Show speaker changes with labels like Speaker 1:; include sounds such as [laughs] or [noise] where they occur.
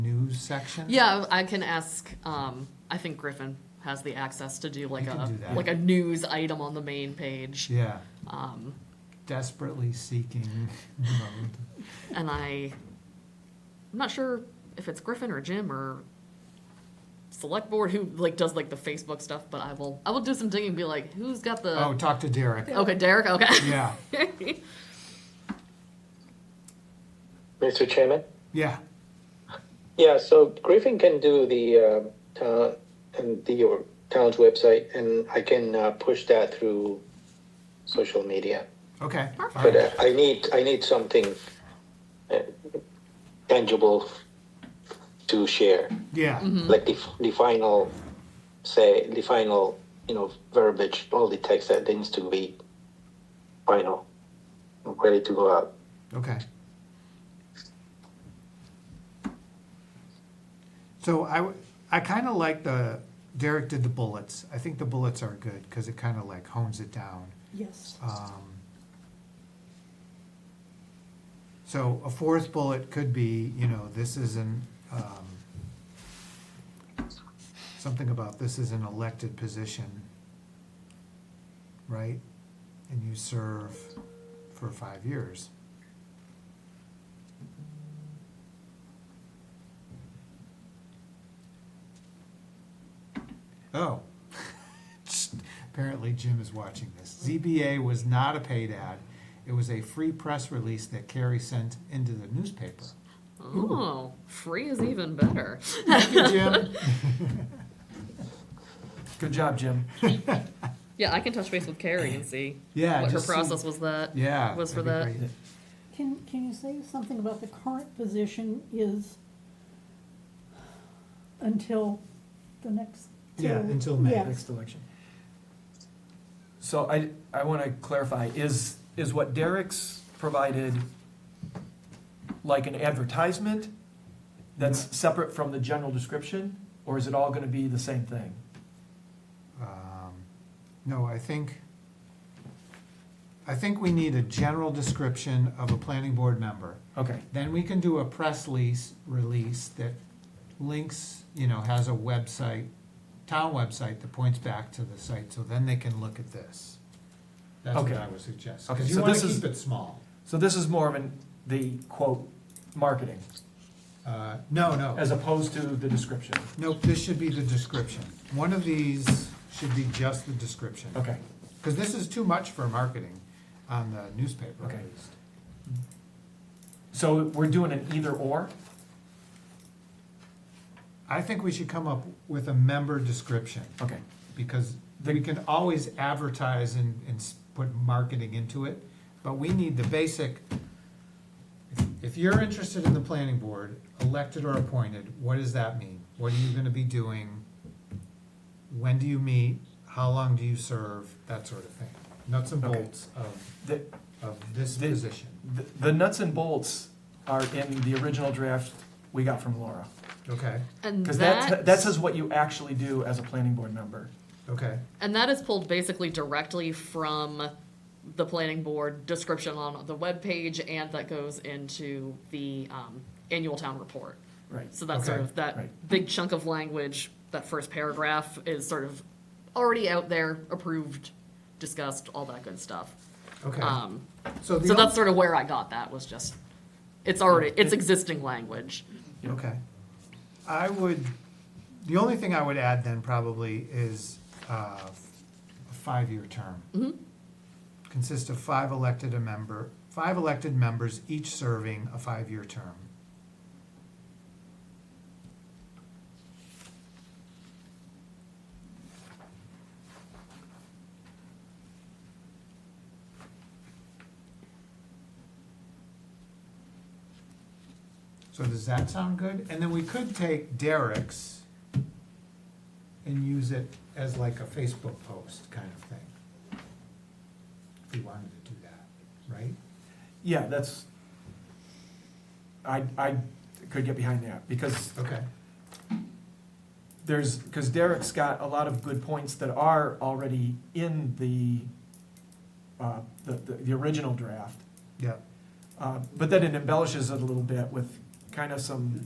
Speaker 1: news section?
Speaker 2: Yeah, I can ask, um, I think Griffin has the access to do like
Speaker 1: can
Speaker 2: a,
Speaker 1: do that.
Speaker 2: like a news item on the main page.
Speaker 1: Yeah,
Speaker 2: Um,
Speaker 1: desperately seeking mode.
Speaker 2: and I, I'm not sure if it's Griffin or Jim or select board who like does like the Facebook stuff, but I will, I will do some digging and be like, who's got the,
Speaker 1: Oh, talk to Derek.
Speaker 2: okay, Derek, okay.
Speaker 1: Yeah,
Speaker 3: Mr. Chairman?
Speaker 1: yeah,
Speaker 3: Yeah, so Griffin can do the, uh, town, and the, your town's website, and I can, uh, push that through social media.
Speaker 1: okay. all
Speaker 3: But
Speaker 1: right.
Speaker 3: uh, I need, I need something uh, tangible to share,
Speaker 1: Yeah,
Speaker 3: like the, f- the final, say, the final, you know, verbiage, all the text that needs to be final, ready to go out.
Speaker 1: okay. So I, w- I kind of like the, Derek did the bullets. I think the bullets are good because it kind of like hones it down.
Speaker 4: Yes.
Speaker 1: Um, So a fourth bullet could be, you know, this is an, um, something about this is an elected position, right? And you serve for five years. Oh, [laughs] Apparently Jim is watching this. ZBA was not a paid ad. It was a free press release that Carrie sent into the newspaper.
Speaker 2: [laughs] Oh, free is even better. [laughs]
Speaker 1: Thank you, Jim.
Speaker 5: Good job, Jim.
Speaker 2: Yeah, I can touch base with Carrie and see
Speaker 1: Yeah,
Speaker 2: what her
Speaker 1: just see-
Speaker 2: process was that.
Speaker 1: Yeah.
Speaker 2: Was for
Speaker 1: that'd be
Speaker 2: that.
Speaker 1: great.
Speaker 4: Can, can you say something about the current position is until the next?
Speaker 1: Yeah,
Speaker 4: till-
Speaker 1: until May.
Speaker 4: yeah.
Speaker 5: Next election. So I, I want to clarify, is, is what Derek's provided like an advertisement that's separate from the general description? Or is it all going to be the same thing?
Speaker 1: Um, No, I think, I think we need a general description of a planning board member.
Speaker 5: Okay,
Speaker 1: Then we can do a press lease, release that links, you know, has a website, town website that points back to the site, so then they can look at this. That's what
Speaker 5: Okay.
Speaker 1: I would suggest,
Speaker 5: Okay,
Speaker 1: because you
Speaker 5: so
Speaker 1: wanna
Speaker 5: this is-
Speaker 1: keep it small.
Speaker 5: so this is more of an, the quote, marketing,
Speaker 1: Uh, no, no,
Speaker 5: as opposed to the description.
Speaker 1: nope, this should be the description. One of these should be just the description.
Speaker 5: Okay,
Speaker 1: Because this is too much for marketing on the newspaper at
Speaker 5: Okay.
Speaker 1: least.
Speaker 5: so we're doing an either or?
Speaker 1: I think we should come up with a member description.
Speaker 5: Okay,
Speaker 1: because we can always advertise and, and s- put marketing into it, but we need the basic. if- If you're interested in the planning board, elected or appointed, what does that mean? What are you gonna be doing? When do you meet? How long do you serve? That sort of thing. Nuts and
Speaker 5: Okay.
Speaker 1: bolts of,
Speaker 5: The-
Speaker 1: of this
Speaker 5: The-
Speaker 1: position.
Speaker 5: The the nuts and bolts are in the original draft we got from Laura.
Speaker 1: Okay,
Speaker 2: And
Speaker 5: Because that,
Speaker 2: that,
Speaker 5: that says what you actually do as a planning board member.
Speaker 1: okay,
Speaker 2: and that is pulled basically directly from the planning board description on the webpage, and that goes into the um, annual town report.
Speaker 5: Right.
Speaker 2: So that's sort
Speaker 1: Okay,
Speaker 2: of that
Speaker 5: right.
Speaker 2: big chunk of language, that first paragraph is sort of already out there, approved, discussed, all that good stuff.
Speaker 1: okay.
Speaker 2: Um,
Speaker 1: So the,
Speaker 2: so that's
Speaker 1: o-
Speaker 2: sort of where I got that was just, it's already, it's existing language.
Speaker 1: okay. I would, the only thing I would add then probably is, uh, a five-year term. consists of five elected a member, five elected members, each serving a five-year term. So does that sound good? And then we could take Derek's and use it as like a Facebook post kind of thing. If we wanted to do that, right?
Speaker 5: Yeah, that's, I, I could get behind that, because
Speaker 1: Okay,
Speaker 5: there's, because Derek's got a lot of good points that are already in the, uh, the, the, the original draft.
Speaker 1: yeah.
Speaker 5: Uh, But then it embellishes it a little bit with kind of some